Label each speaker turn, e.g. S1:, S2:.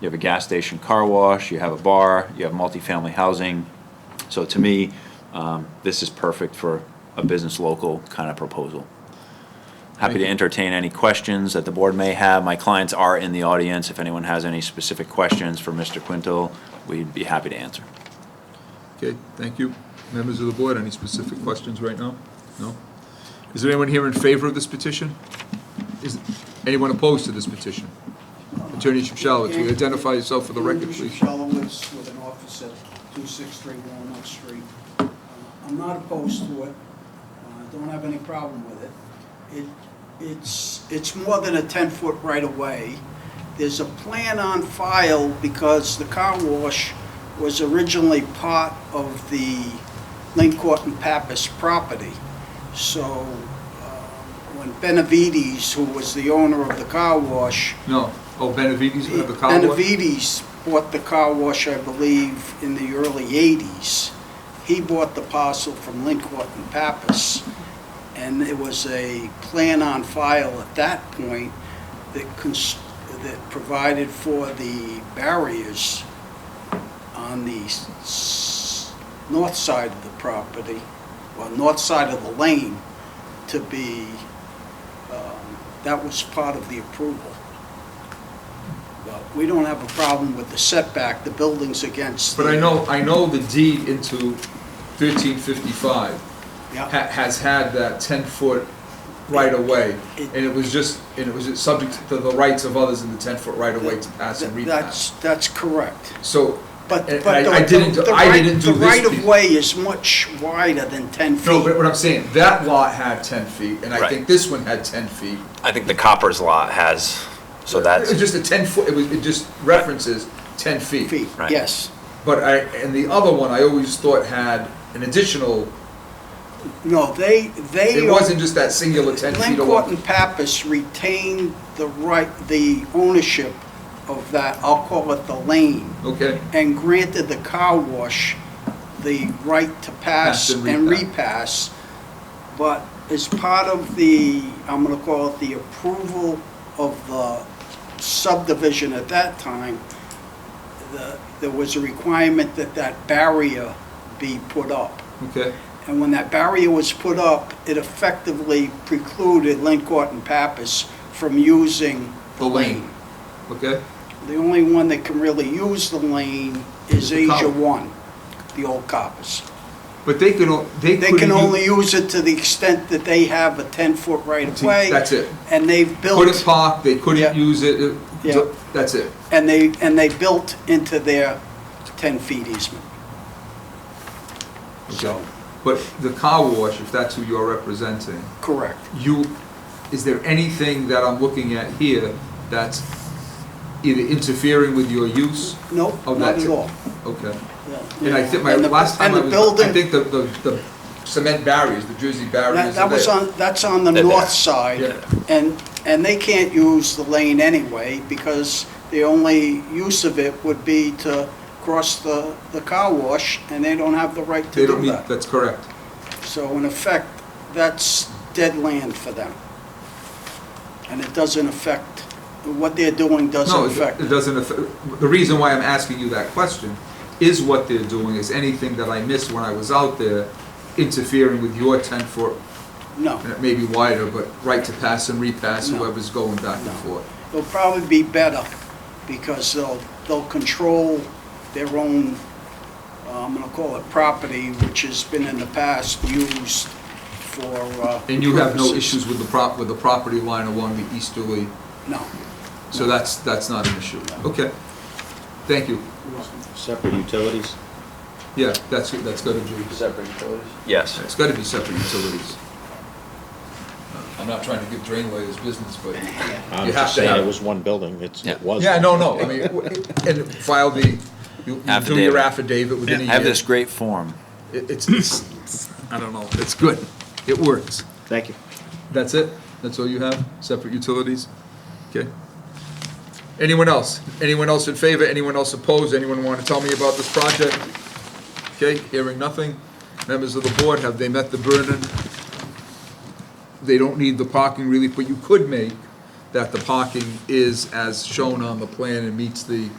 S1: you have a gas station car wash, you have a bar, you have multifamily housing. So to me, um, this is perfect for a business local kind of proposal. Happy to entertain any questions that the board may have. My clients are in the audience. If anyone has any specific questions for Mr. Quinto, we'd be happy to answer.
S2: Okay, thank you. Members of the board, any specific questions right now? No? Is there anyone here in favor of this petition? Is anyone opposed to this petition? Attorney Shapchelowitz, will you identify yourself for the record,
S3: Andrew
S2: please?
S3: Shellowitz with an office at 263 Walnut Street. Uh, I'm not opposed to it. Uh, I don't have any problem with it. It, it's, it's more than a 10-foot right-of-way. There's a plan on file because the car wash was originally part of the Lincourt and Pappas property. So uh, when Benavides, who was the owner of the car wash,
S2: No. Oh, Benavides, we have the car wash?
S3: Benavides bought the car wash, I believe, in the early 80s. He bought the parcel from Lincourt and Pappas, and it was a plan on file at that point that cons- that provided for the barriers on the s- s- north side of the property, or uh, north side of the lane, to be, um, that was part of the approval. Well, we don't have a problem with the setback, the building's against.
S2: But
S3: the-
S2: I know, I know the deed into 1355
S3: Yeah.
S2: ha- has had that 10-foot right-of-way,
S3: It-
S2: and it was just, and it was just subject to the rights of others in the 10-foot right-of-way to pass and repass.
S3: That's, that's correct.
S2: So
S3: But,
S2: And-
S3: but
S2: and
S3: the.
S2: I- I didn't do-
S3: the
S2: I
S3: right-
S2: didn't do
S3: The
S2: this
S3: right of
S2: piece.
S3: way is much wider than ten feet.
S2: No, but what I'm saying, that lot had ten feet, and I
S4: Right.
S2: think this one had ten feet.
S4: I think the Coppers lot has, so
S2: It was
S4: that's,
S2: just a ten foot, it was, it just references ten feet.
S3: Feet,
S4: Right.
S3: yes.
S2: But I, and the other one, I always thought had an additional,
S3: No, they, they.
S2: it
S3: are-
S2: wasn't just that singular ten feet
S3: Glencourt
S2: alone.
S3: and Pappas retained the right, the ownership of that, I'll call it the lane,
S2: Okay,
S3: and granted the car wash the right to pass
S2: Pass and
S3: and repass. But as part of the, I'm gonna call it the approval of the subdivision at that time, the, there was a requirement that that barrier be put up.
S2: okay,
S3: And when that barrier was put up, it effectively precluded Lincourt and Pappas from using
S2: The lane. okay.
S3: The only one that can really use the lane
S2: Is
S3: is
S2: the
S3: Asia
S2: cop.
S3: One, the old coppers.
S2: But they could, o- they
S3: They
S2: couldn't.
S3: can
S2: u-
S3: only use it to the extent that they have a 10-foot right-of-way.
S2: That's it.
S3: And they've
S2: Couldn't
S3: built,
S2: park, they
S3: Yeah.
S2: couldn't use it, it,
S3: Yeah.
S2: that's it.
S3: and they, and they built into their 10-feet easement.
S2: Okay. But the car wash, if that's who you're representing,
S3: Correct.
S2: you, is there anything that I'm looking at here that's either interfering with your use?
S3: Nope,
S2: Oh,
S3: not
S2: that's
S3: at
S2: it.
S3: all.
S2: Okay.
S3: Yeah,
S2: And I think my,
S3: the-
S2: last time I
S3: And
S2: was, I
S3: the building,
S2: think the, the, the cement barriers, the Jersey
S3: that
S2: barriers
S3: that
S2: are
S3: was
S2: there.
S3: on, that's on the
S4: They're
S3: north
S4: there.
S3: side.
S2: Yeah.
S3: And, and they can't use the lane anyway because the only use of it would be to cross the, the car wash and they don't have the right
S2: They
S3: to
S2: don't
S3: do
S2: need,
S3: that.
S2: that's correct.
S3: So in effect, that's dead land for them. And it doesn't affect, what they're doing
S2: No,
S3: doesn't
S2: it
S3: affect.
S2: it doesn't affect, the reason why I'm asking you that question is what they're doing, is anything that I missed when I was out there interfering with your ten foot,
S3: No.
S2: and it may be wider, but right to pass and repass
S3: No.
S2: whoever's going back and
S3: No.
S2: forth.
S3: It'll probably be better because they'll, they'll control their own, uh, I'm gonna call it property, which has been in the past used for, uh.
S2: And you have no
S3: purposes.
S2: issues with the prop, with the property line along the easterly,
S3: No.
S2: so that's, that's not an issue. Okay, thank you.
S5: Separate utilities?
S2: Yeah, that's, that's gotta be,
S5: Separate utilities.
S4: yes.
S2: it's gotta be separate utilities. I'm not trying to give drain layers business, but
S5: I'm
S2: you have
S5: just
S2: to
S5: saying, it
S2: have.
S5: was one building, it's,
S4: Yeah.
S5: it was.
S2: Yeah, no, no, I mean, and file the, you you do
S4: Affidavit.
S2: your affidavit within a year.
S4: Have this great form.
S2: It- It's, it's, I don't know, it's good, it works.
S5: Thank you.
S2: That's it? That's all you have? Separate utilities? Okay. Anyone else? Anyone else in favor? Anyone else opposed? Anyone want to tell me about this project? Okay, hearing nothing. Members of the board, have they met the burden? They don't need the parking relief, but you could make that the parking is as shown on the plan and meets the